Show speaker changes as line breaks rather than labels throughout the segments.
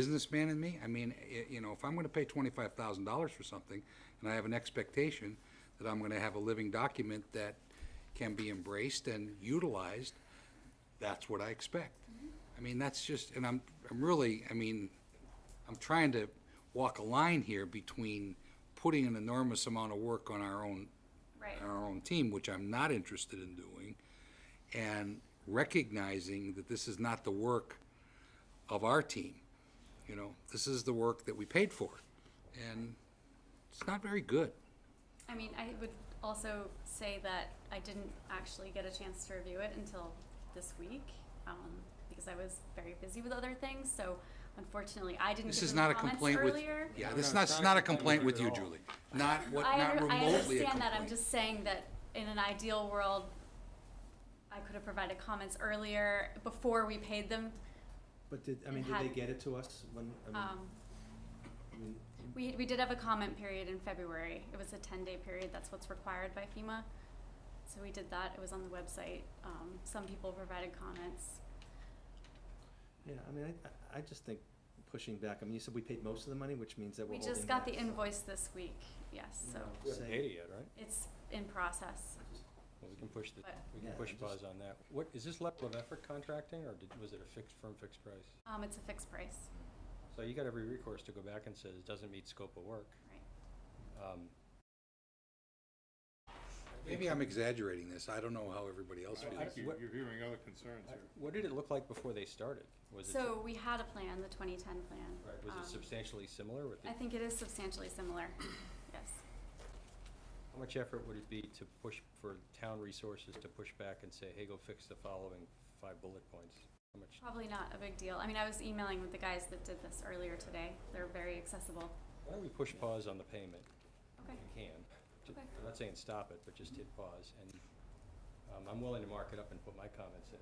businessman in me, I mean, i- you know, if I'm gonna pay twenty-five thousand dollars for something, and I have an expectation that I'm gonna have a living document that can be embraced and utilized, that's what I expect. I mean, that's just, and I'm, I'm really, I mean, I'm trying to walk a line here between putting an enormous amount of work on our own,
Right.
on our own team, which I'm not interested in doing, and recognizing that this is not the work of our team. You know, this is the work that we paid for, and it's not very good.
I mean, I would also say that I didn't actually get a chance to review it until this week um, because I was very busy with other things. So unfortunately, I didn't.
This
give
is
them
not a
comments
complaint with,
earlier.
yeah,
No,
this is
no,
not,
it's
it's
not a
not a
complaint
complaint with
with
you,
you at all.
Julie. Not what,
I,
not
under- I
remotely a
understand that. I'm
complaint.
just saying that in an ideal world, I could have provided comments earlier before we paid them.
But did, I mean,
It
did they
had-
get it to us when, I mean,
Um,
I mean,
we, we did have a comment period in February. It was a 10 day period. That's what's required by FEMA. So we did that. It was on the website. Um, some people provided comments.
yeah, I mean, I- I, I just think pushing back, I mean, you said we paid most of the money, which means that we're
We
holding
just got
back,
the
so,
invoice this week, yes,
you
so
know,
We haven't
say-
paid it yet, right?
it's in process.
Well, we can push the,
But-
we can
Yeah,
push
just-
pause on that. What, is this level of effort contracting, or did, was it a fixed, firm fixed price?
Um, it's a fixed price,
So you got every recourse to go back and say, it doesn't meet scope of work.
right?
Um,
Maybe I'm exaggerating this. I don't know how everybody else
I-
I
feels.
think you-
what-
you're hearing other concerns here.
What did it look like before they started? Was it, sub-
So we had a plan, the twenty ten plan.
right, was
Um,
it substantially similar with the,
I think it is substantially similar, yes.
how much effort would it be to push for town resources to push back and say, hey, go fix the following five bullet points? How much,
Probably not a big deal. I mean, I was emailing with the guys that did this earlier today. They're very accessible.
why don't we push pause on the payment?
Okay,
you can. Ju-
Okay.
I'm not saying stop it, but just hit pause, and um, I'm willing to mark it up and put my comments in.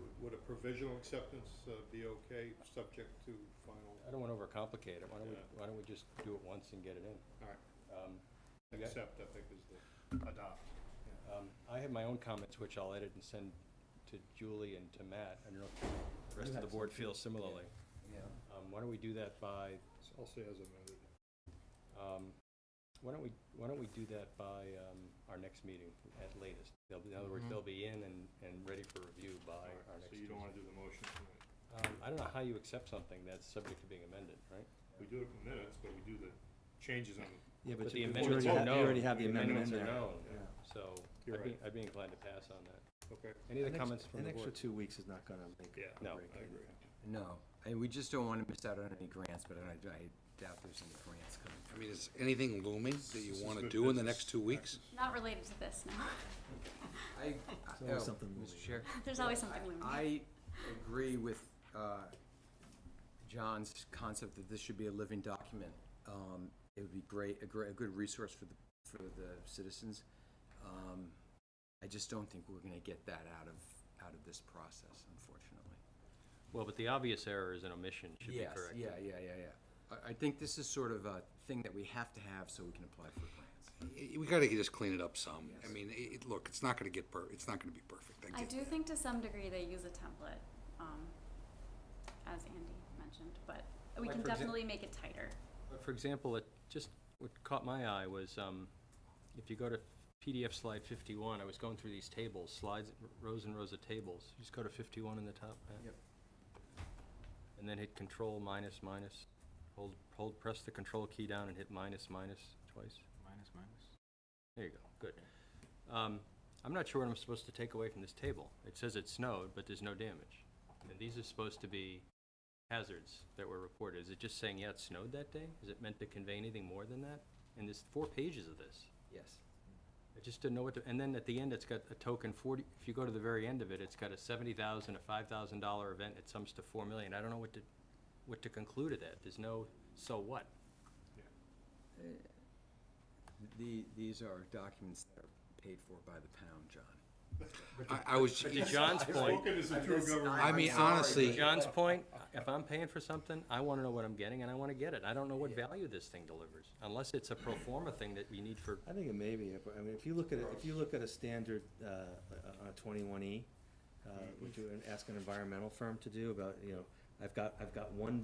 Would- Would a provisional acceptance uh, be okay, subject to final,
I don't want to overcomplicate it, why don't we,
Yeah.
why don't we just do it once and get it in?
all right,
Um, you got-
accept, I think is the adopt.
um, I have my own comments, which I'll edit and send to Julie and to Matt, I don't know if the rest of the board feels similarly. Um, Why don't we do that by,
So I'll say as amended.
um, why don't we, why don't we do that by um, our next meeting at latest? They'll be- In other words,
Mhm.
Mm-hmm.
they'll be in and, and ready for review by
All right,
our next
So
Tuesday.
you don't want to do the motion tonight.
Um, I don't know how you accept something that's subject to being amended, right?
We do it in minutes, but we do the changes on, the-
Yeah,
But
but
the
you you
amendments
already
are
have, you
known.
already have the
The
amendment in
amendments
there.
are
Yeah.
known. So
You're
I'd be,
right.
I'd be inclined to pass on that.
okay,
Any
An
other
ex-
comments from the
An extra
board?
two weeks is not gonna make
yeah.
a
No.
break.
I agree.
No, and we just don't want to miss out on any grants, but I, I doubt there's any grants coming.
I mean, is anything looming that you
This is
want to
good
do in the
business
next two weeks?
not related to this, no.
I,
There's always
oh,
something moving.
Mr. Chair.
There's always something looming.
I agree with uh, John's concept that this should be a living document. Um, It would be great, a great, a good resource for the, for the citizens. Um, I just don't think we're going to get that out of, out of this process, unfortunately.
Well, but the obvious error is an omission should be
Yes,
corrected.
yeah, yeah, yeah, yeah. I, I think this is sort of a thing that we have to have so we can apply for grants.
I- We gotta just clean it up some. I mean, i it, look, it's not gonna get per, it's not gonna be perfect. I
I
get
do
that.
think to some degree they use a template, um, as Andy mentioned, but we
Like
can
for exam-
definitely make it tighter.
But For example, it just, what caught my eye was, um, if you go to PDF slide fifty-one, I was going through these tables, slides, rows and rows of tables. You Just go to fifty-one in the top, Matt.
Yep.
And then hit control minus minus, hold, hold, press the control key down and hit minus minus twice.
Minus, minus.
There you go, good. Um, I'm not sure what I'm supposed to take away from this table. It says it snowed, but there's no damage. And these are supposed to be hazards that were reported. Is it just saying, yeah, it snowed that day? Is it meant to convey anything more than that? And there's four pages of this.
Yes.
I just didn't know what to, and then at the end, it's got a token forty, if you go to the very end of it, it's got a seventy thousand, a five thousand dollar event, it sums to four million. I don't know what to, what to conclude of that. There's no, so what?
The, these are documents that are paid for by the pound, John.
I, I was,
But to John's point.
Spoken as a true
just-
government.
I mean,
I'm sorry,
honestly,
To John's point, if I'm paying for something, I wanna know what I'm getting and I wanna get it. I don't know what value this thing delivers, unless it's a pro forma thing that we need for,
I think it may be, but, I mean, if you look at, it- if you look at a standard, uh, uh, on
Mm-hmm.
twenty-one E, uh, which you would ask an environmental firm to do about, you know, I've got, I've got one